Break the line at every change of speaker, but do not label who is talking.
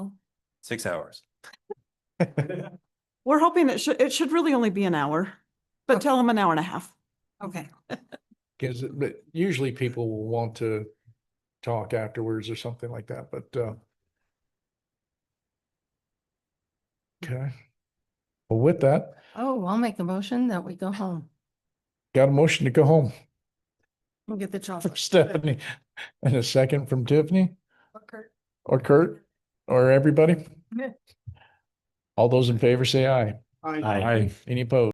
six hours.
We're hoping it should, it should really only be an hour, but tell them an hour and a half.
Okay,
Because, but usually people will want to talk afterwards or something like that, but, uh. Okay. Well, with that,
Oh, I'll make the motion that we go home
got a motion to go home
and get the chocolate.
from Stephanie and a second from Tiffany or Kurt or everybody.
Yeah.
All those in favor say aye.
I-
Any opposed?